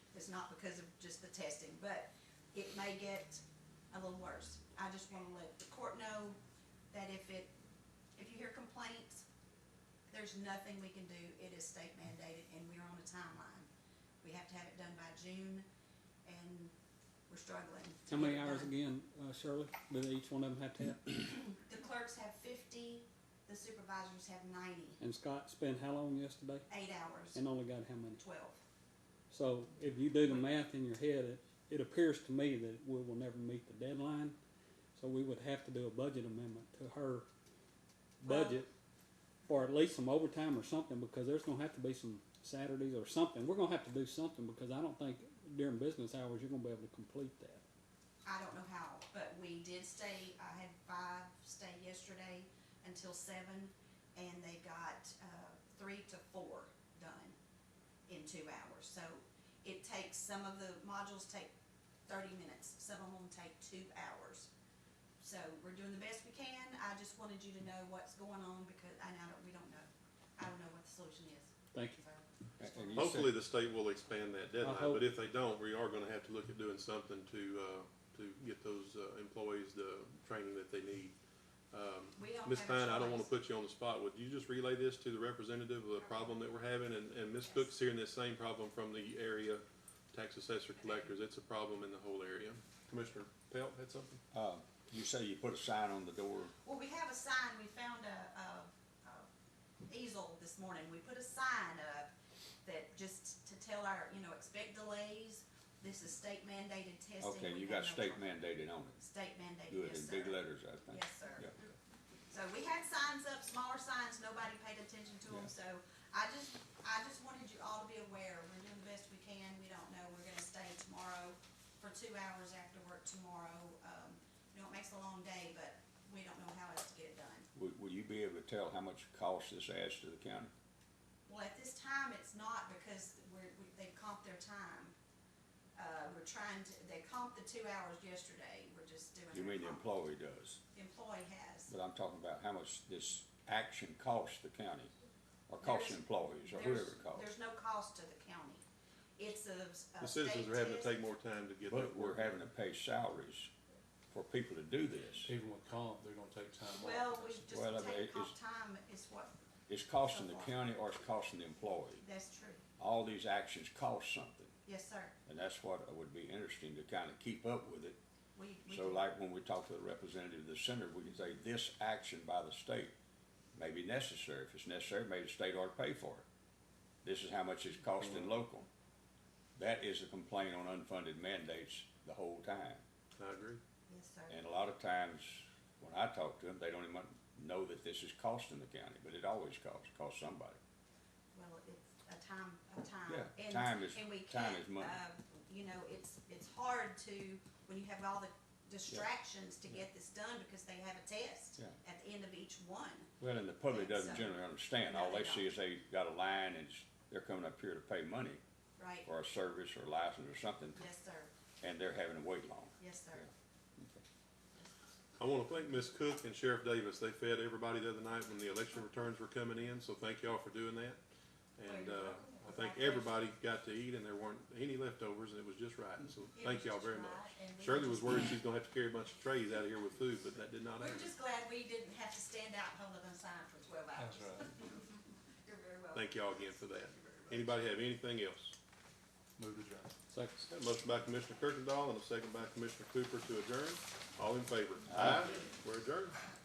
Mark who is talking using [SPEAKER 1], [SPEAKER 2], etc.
[SPEAKER 1] not because of just the testing, but it may get a little worse. I just want to let the court know that if it, if you hear complaints, there's nothing we can do. It is state mandated and we're on a timeline. We have to have it done by June and we're struggling. to
[SPEAKER 2] How many
[SPEAKER 1] get it
[SPEAKER 2] hours
[SPEAKER 1] done.
[SPEAKER 2] again, uh, Shirley? Do each one of them have to have?
[SPEAKER 1] The clerks have fifty, the supervisors have ninety,
[SPEAKER 2] And Scott spent how long yesterday?
[SPEAKER 1] eight hours,
[SPEAKER 2] And only got how many?
[SPEAKER 1] twelve.
[SPEAKER 2] So if you do the math in your head, it, it appears to me that we will never meet the deadline. So we would have to do a budget amendment to her budget. Or at least some overtime or something, because there's gonna have to be some Saturdays or something. We're gonna have to do something, because I don't think during business hours, you're gonna be able to complete that.
[SPEAKER 1] I don't know how, but we did stay, I had five stay yesterday until seven, and they got, uh, three to four done in two hours. So it takes, some of the modules take thirty minutes, some of them take two hours. So we're doing the best we can, I just wanted you to know what's going on because, and I don't, we don't know, I don't know what the solution is.
[SPEAKER 2] Thank you.
[SPEAKER 1] So,
[SPEAKER 3] And you said-
[SPEAKER 4] Hopefully, the state will expand that
[SPEAKER 2] I
[SPEAKER 4] deadline,
[SPEAKER 2] hope-
[SPEAKER 4] but if they don't, we are gonna have to look at doing something to, uh, to get those, uh, employees the training that they need. Um,
[SPEAKER 1] We don't
[SPEAKER 4] Ms.
[SPEAKER 1] have a
[SPEAKER 4] Pine, I don't wanna
[SPEAKER 1] choice.
[SPEAKER 4] put you on the spot, would you just relay this to the representative of the problem that we're having, and, and Ms.
[SPEAKER 1] Yes.
[SPEAKER 4] Cook's hearing this same problem from the area tax assessor collectors, it's a problem in the whole area. Commissioner Pelt had something?
[SPEAKER 3] uh, You say you put a sign on the door,
[SPEAKER 1] Well, we have a sign, we found a, a, a easel this morning, we put a sign up that just to tell our, you know, expect delays, this is state mandated testing.
[SPEAKER 3] okay,
[SPEAKER 1] We
[SPEAKER 3] you
[SPEAKER 1] have
[SPEAKER 3] got
[SPEAKER 1] no-
[SPEAKER 3] state mandated on it,
[SPEAKER 1] State mandated,
[SPEAKER 3] good,
[SPEAKER 1] yes,
[SPEAKER 3] in
[SPEAKER 1] sir.
[SPEAKER 3] big letters, I think.
[SPEAKER 1] Yes, sir.
[SPEAKER 3] Yeah.
[SPEAKER 1] So we had signs up, smaller signs, nobody paid attention to them,
[SPEAKER 3] Yeah.
[SPEAKER 1] so I just, I just wanted you all to be aware, we're doing the best we can, we don't know, we're gonna stay tomorrow for two hours after work tomorrow, um, you know, it makes a long day, but we don't know how else to get it done.
[SPEAKER 3] Will, will you be able to tell how much cost this adds to the county?
[SPEAKER 1] Well, at this time, it's not because we're, we, they comped their time. Uh, we're trying to, they comped the two hours yesterday, we're just doing.
[SPEAKER 3] You
[SPEAKER 1] their
[SPEAKER 3] mean the
[SPEAKER 1] comp-
[SPEAKER 3] employee does,
[SPEAKER 1] The employee has.
[SPEAKER 3] but I'm talking about how much this action costs the county, or costs
[SPEAKER 1] There's-
[SPEAKER 3] employees, or
[SPEAKER 1] There's-
[SPEAKER 3] whoever it costs.
[SPEAKER 1] There's no cost to the county. It's a.
[SPEAKER 4] The citizens are having to take more time to get that
[SPEAKER 3] But
[SPEAKER 4] work.
[SPEAKER 3] we're having to pay salaries for people to do this.
[SPEAKER 5] Even with comp, they're gonna take time off.
[SPEAKER 1] Well, we
[SPEAKER 3] Well, I
[SPEAKER 1] just
[SPEAKER 3] mean,
[SPEAKER 1] take
[SPEAKER 3] it's-
[SPEAKER 1] comp time is what,
[SPEAKER 3] It's costing the county or it's costing the employee.
[SPEAKER 1] that's true.
[SPEAKER 3] All these actions cost something,
[SPEAKER 1] Yes, sir.
[SPEAKER 3] and that's what would be interesting to kind of keep up with it.
[SPEAKER 1] We, we.
[SPEAKER 3] So
[SPEAKER 1] do.
[SPEAKER 3] like when we talk to the representative of the center, we can say this action by the state may be necessary. If it's necessary, maybe the state ought to pay for it. This is how much it's costing local. That is a complaint on unfunded mandates the whole time.
[SPEAKER 4] I agree.
[SPEAKER 1] Yes, sir.
[SPEAKER 3] And a lot of times, when I talk to them, they don't even know that this is costing the county, but it always costs, costs somebody.
[SPEAKER 1] Well, it's a time, a time.
[SPEAKER 3] Yeah,
[SPEAKER 1] And-
[SPEAKER 3] time is-
[SPEAKER 1] and we
[SPEAKER 3] time
[SPEAKER 1] can't,
[SPEAKER 3] is money.
[SPEAKER 1] uh, You know, it's, it's hard to, when you have all the distractions to get this done because they have a test
[SPEAKER 3] Yeah.
[SPEAKER 1] at the end of each one.
[SPEAKER 3] Well, and the public doesn't
[SPEAKER 1] So-
[SPEAKER 3] generally understand. All they see is they got a line and it's- they're coming up here to pay money
[SPEAKER 1] Right.
[SPEAKER 3] for a service or license or something,
[SPEAKER 1] Yes, sir.
[SPEAKER 3] and they're having to wait long.
[SPEAKER 1] Yes, sir.
[SPEAKER 4] I want to thank Ms. Cook and Sheriff Davis. They fed everybody the other night when the election returns were coming in, so thank y'all for doing that. And uh, I think everybody got to eat and there weren't any leftovers and it was just right, so thank y'all very much. Shirley was worried she's gonna have to carry a bunch of trays out of here with food, but that did not
[SPEAKER 1] We're
[SPEAKER 4] happen.
[SPEAKER 1] just glad we didn't have to stand out and hold up a sign for twelve hours.
[SPEAKER 5] That's right.
[SPEAKER 1] You're very welcome.
[SPEAKER 4] Thank y'all again for that. Anybody have anything else?
[SPEAKER 5] Move the drive.
[SPEAKER 2] Second.
[SPEAKER 4] Got a motion by Commissioner Kirkendall and a second by Commissioner Cooper to adjourn. All in favor? Aye. We're adjourned.